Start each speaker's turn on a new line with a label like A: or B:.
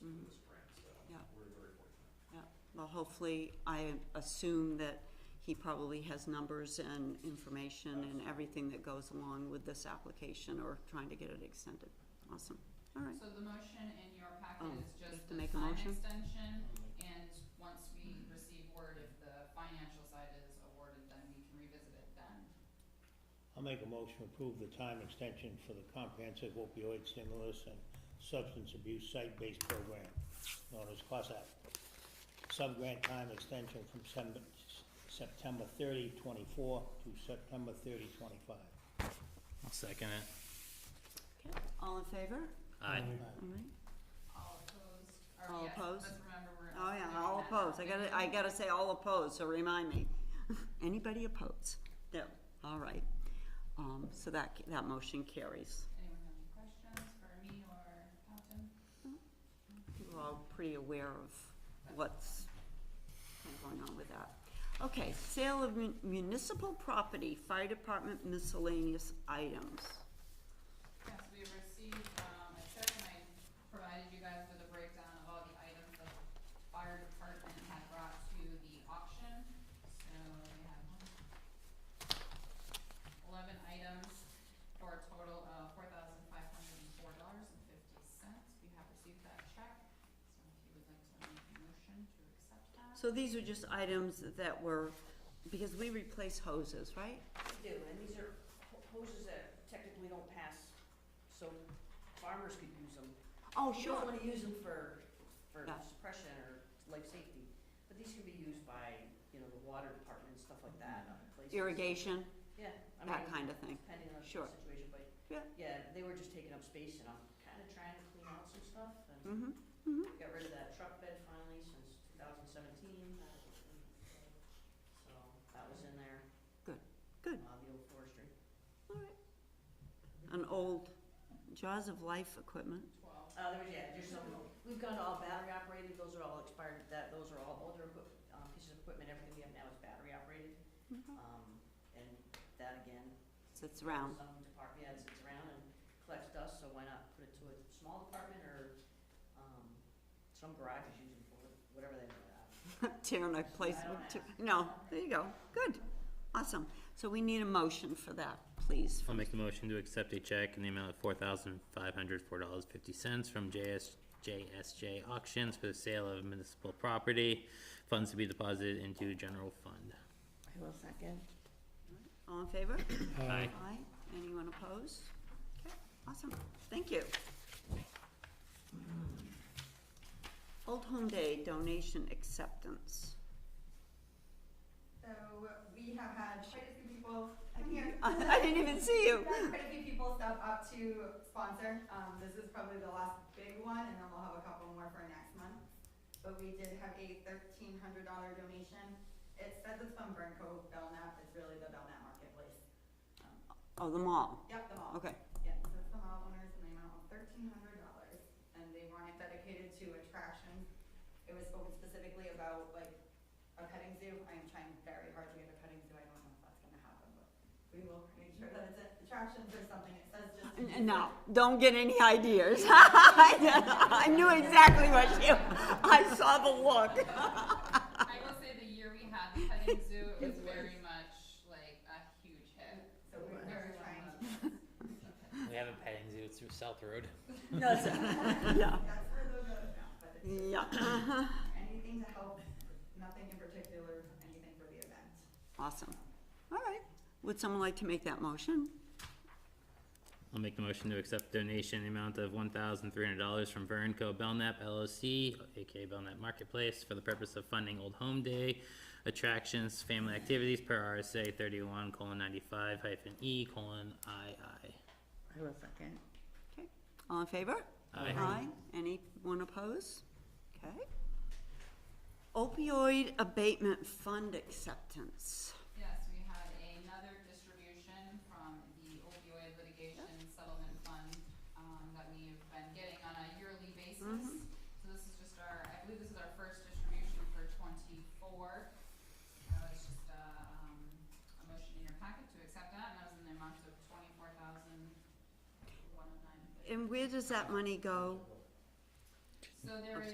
A: Mm-hmm. well, hopefully, I assume that he probably has numbers and information and everything that goes along with this application or trying to get it extended. Awesome, all right.
B: So the motion in your packet
A: Oh,
B: is
A: you have
B: just
A: to
B: the
A: make a
B: time
A: motion?
B: extension, and once we receive word if the financial side is awarded, then we can revisit it then.
C: I'll make a motion to approve the time extension for the comprehensive opioid stimulus and substance abuse site-based program, known as COSAP. Subgrant time extension from Sem- September 30, 24 to September 30, 25.
D: I'll second it.
A: Okay, all in favor?
D: Aye.
A: All right.
B: All opposed, or
A: All
B: yes,
A: opposed?
B: let's remember we're.
A: Oh, yeah,
B: doing
A: all
B: that.
A: opposed, I gotta, I gotta say all opposed, so remind me. Anybody opposed? No, all right. Um, so that, that motion carries.
B: Anyone have any questions for me or Captain?
A: We're all pretty aware of what's been going on with that. Okay, sale of mun- municipal property, fire department miscellaneous items.
B: Yes, we received, um, a check and I provided you guys with a breakdown of all the items the fire department had brought to the auction. So we have eleven items for a total of four thousand five hundred and four dollars and fifty cents. We have received that check, so if you would like to make a motion to accept that.
A: So these are just items that were, because we replace hoses, right?
E: We do, and these are ho- hoses that technically don't pass, so farmers could use them.
A: Oh,
E: You don't wanna use them for, for
A: Yeah.
E: suppression or life safety, but these can be used by, you know, the water department and stuff like that, other places.
A: Irrigation,
E: Yeah, I mean,
A: that kind of thing.
E: depending on the
A: Sure.
E: situation, but,
A: Yeah.
E: yeah, they were just taking up space, and I'm kinda trying to clean out some stuff, and
A: Mm-hmm,
E: got rid of that truck bed finally since two thousand seventeen. So, that was in there.
A: Good, good.
E: Uh, the old forestry.
A: all right. An old Jaws of Life equipment.
B: Twelve.
E: Uh, there was, yeah, there's some, we've gone to all battery operated, those are all expired, that, those are all older equip, um, pieces of equipment, everything we have now is battery operated. Um, and that again,
A: So it's Mm-hmm. round,
E: some department, yeah, it sits around and collects dust, so why not put it to a small department or, um, some garage is using for it, whatever they do.
A: tearing a place,
E: I don't
A: to-
E: ask.
A: no, there you go, good, awesome. So we need a motion for that, please.
D: I'll make a motion to accept a check in the amount of four thousand five hundred four dollars fifty cents from JS, JSJ Auctions for the sale of municipal property. Funds to be deposited into general fund.
E: I will second.
A: All in favor?
D: Aye.
A: Aye. Anyone opposed? Okay, awesome. Thank you. Old Home Day donation acceptance.
F: So we have had quite a few people, I'm here.
A: I didn't even see you.
F: We've had quite a few people step up to sponsor. Um, this is probably the last big one, and then we'll have a couple more for next month. But we did have a thirteen hundred dollar donation. It says it's from Burnco Belknap, it's really the Belknap Marketplace. Um,
A: Oh, the mall,
F: Yep, the mall.
A: okay.
F: Yes, it's the mall owners, and they amount of thirteen hundred dollars, and they want it dedicated to attractions. It was spoken specifically about like a petting zoo, I am trying very hard to get a petting zoo, I don't know if that's gonna happen, but we will make sure that it's attractions or something, it says just.
A: N- No, don't get any ideas. I knew exactly what you, I saw the look.
B: I will say the year we had the petting zoo, it was very much like a huge hit.
F: So we're we're trying, to-
D: We have a petting zoo, it's through South Road.
A: No, sir. Yeah,
F: that's where those goes now, but it's
A: yeah. Uh-huh.
F: anything to help, nothing in particular, anything for the event.
A: Awesome. All right. Would someone like to make that motion?
D: I'll make the motion to accept donation in the amount of one thousand three hundred dollars from Vernco Belknap LLC, aka Belknap Marketplace, for the purpose of funding Old Home Day attractions, family activities per RSA thirty-one colon ninety-five hyphen E colon II.
E: I will second.
A: Okay. All in favor?
D: Aye.
A: Aye. Anyone oppose? Okay. Opioid abatement fund acceptance.
B: Yes, we had another distribution from the opioid litigation settlement fund, um, that we have been getting on a yearly basis. So this is just our, I believe this is our first distribution for twenty-four. So it's just a, um, a motion in your packet to accept that, and that was in the amount of twenty-four thousand one oh nine.
A: And where does that money go?
B: So there is